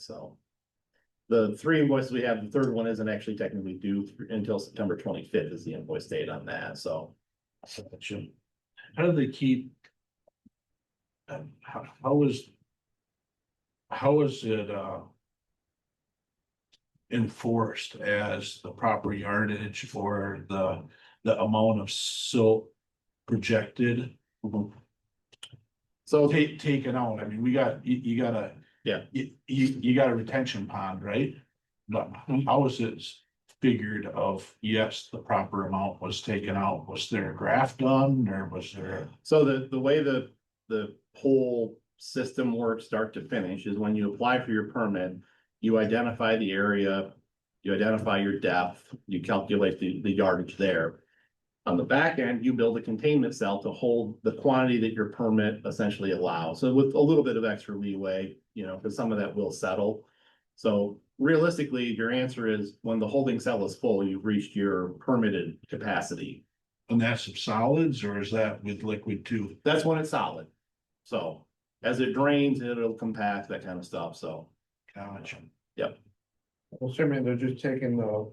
so. The three invoices we have, the third one isn't actually technically due th- until September twenty-fifth is the invoice date on that, so. How do they keep? um, how, how is? How is it, uh? Enforced as the proper yardage for the, the amount of silt projected? So Ta- taken out, I mean, we got, you, you gotta. Yeah. You, you, you got a retention pond, right? But how is it figured of, yes, the proper amount was taken out, was there a graph done, or was there? So the, the way the, the whole system works, start to finish, is when you apply for your permit, you identify the area, you identify your depth, you calculate the, the yardage there. On the back end, you build a containment cell to hold the quantity that your permit essentially allows, so with a little bit of extra leeway, you know, because some of that will settle. So realistically, your answer is, when the holding cell is full, you've reached your permitted capacity. And that's of solids, or is that with liquid too? That's when it's solid. So as it drains, it'll compact, that kind of stuff, so. Gotcha. Well, certainly they're just taking the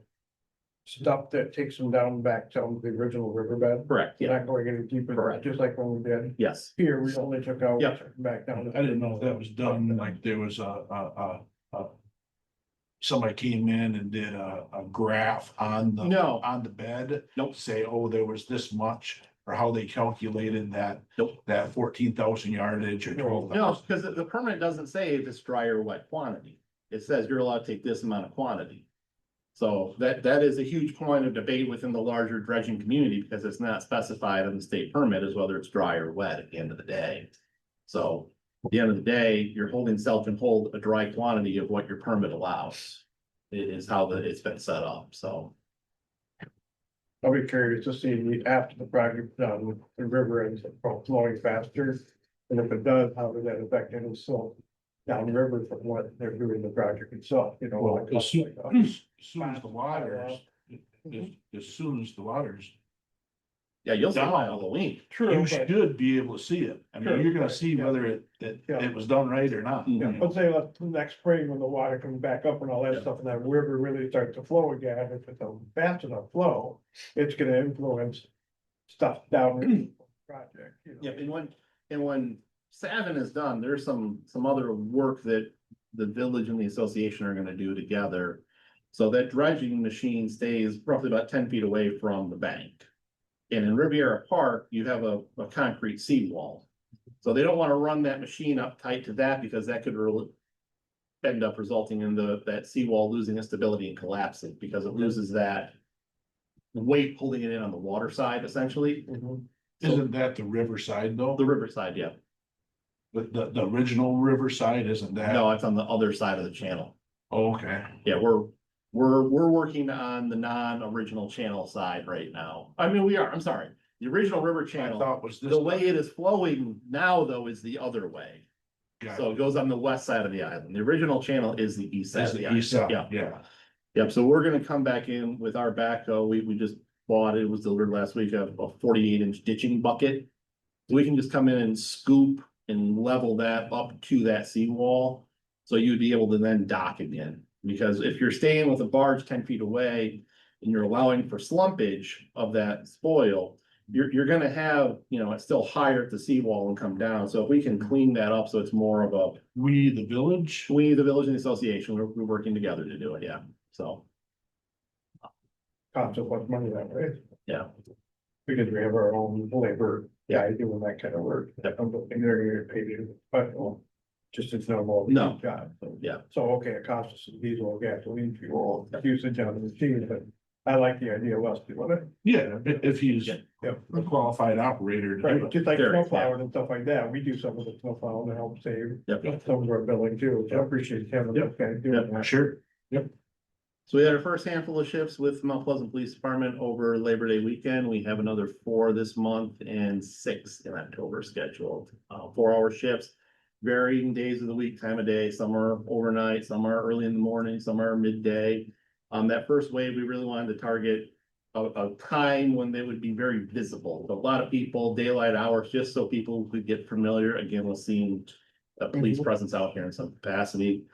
stuff that takes them down back to the original riverbed. Correct, They're Not going any deeper, Correct. just like when we did Yes, here, we only took out. Yeah. Back I down. didn't know if that was done, like there was a, a, a, a. Somebody came in and did a, a graph on the. No. On the bed. Nope. Say, oh, there was this much, or how they calculated that. Nope. That fourteen thousand yardage or twelve no, thousand. because the permit doesn't say if it's dry or wet quantity. It says you're allowed to take this amount of quantity. So that, that is a huge point of debate within the larger dredging community because it's not specified in the state permit as whether it's dry or wet at the end of the day. So at the end of the day, your holding cell can hold a dry quantity of what your permit allows. It is how the, it's been set up, so. I'll be curious to see the, after the project's done, with the river ends up flowing faster. And if it does, how does that affect any silt downriver from what they're doing the project itself, you know? Well, like- uh, as soon, like, as soon as the waters, as, as soon as the waters Yeah, you'll see by Down. Halloween. True, You but, should be able to see it. I mean, Sure, you're gonna right, see yeah. whether it, that Yeah. Mm. it was done right or not. Mhm. yeah, let's say like the next spring when the water comes back up and all Yeah. that stuff, and that river really starts to flow again, if it's a fast enough flow, it's gonna influence stuff down in the project, you know? Yep, and when, and when Savin is done, there's some, some other work that the village and the association are gonna do together. So that dredging machine stays roughly about ten feet away from the bank. And in Riviera Park, you have a, a concrete seawall. So they don't wanna run that machine up tight to that because that could really end up resulting in the, that seawall losing its stability and collapsing because it loses that weight holding it in on the water side essentially, Mhm. Isn't that the riverside though? the riverside, yeah. The, the, the original riverside, isn't that? No, it's on the other side of the channel. Okay, Yeah, we're, we're, we're working on the non-original channel side right now. I mean, we are, I'm sorry. The original river I channel, thought was this. the way it is flowing now though is the other way. Got So it goes on the west side of the island. The original channel is the east it. side Is of the the east island. side, Yeah, yeah. yep. So we're gonna come back in with our backhoe. We, we just bought, it was delivered last week, a a forty-eight inch ditching bucket. We can just come in and scoop and level that up to that seawall. So you'd be able to then dock again, because if you're staying with a barge ten feet away and you're allowing for slumpage of that spoil, you're, you're gonna have, you know, it's still higher at the seawall and come down. So if we can clean that up, so it's more of a We, the village, we, the village and the association, we're, we're working together to do it, yeah, so, Costs a lot of money that way. yeah. Because we have our own labor guy doing that kind of work. Yeah. I'm not think they're gonna get paid to, but well, just as normal. No. Job. Yeah. So, okay, it costs us some diesel, gasoline, fuel, usage on the machine, but I like the idea, Wes, do you want it? yeah, if, if he's Yeah. a qualified operator. to do Right, it. just like There, yeah. snowplowing and stuff like that, we do some of the snowplowing to help save Yep. some of our billing too, so I appreciate having that guy doing that. Sure, So we had our first handful of shifts with Mount Pleasant Police Department over Labor Day weekend. We have another four this month and six in October scheduled. Uh, four hour shifts, varying days of the week, time of day, some are overnight, some are early in the morning, some are midday. Um, that first wave, we really wanted to target a, a time when they would be very visible. A lot of people, daylight hours, just so people could get familiar again with seeing a police Mhm. presence out here in some capacity.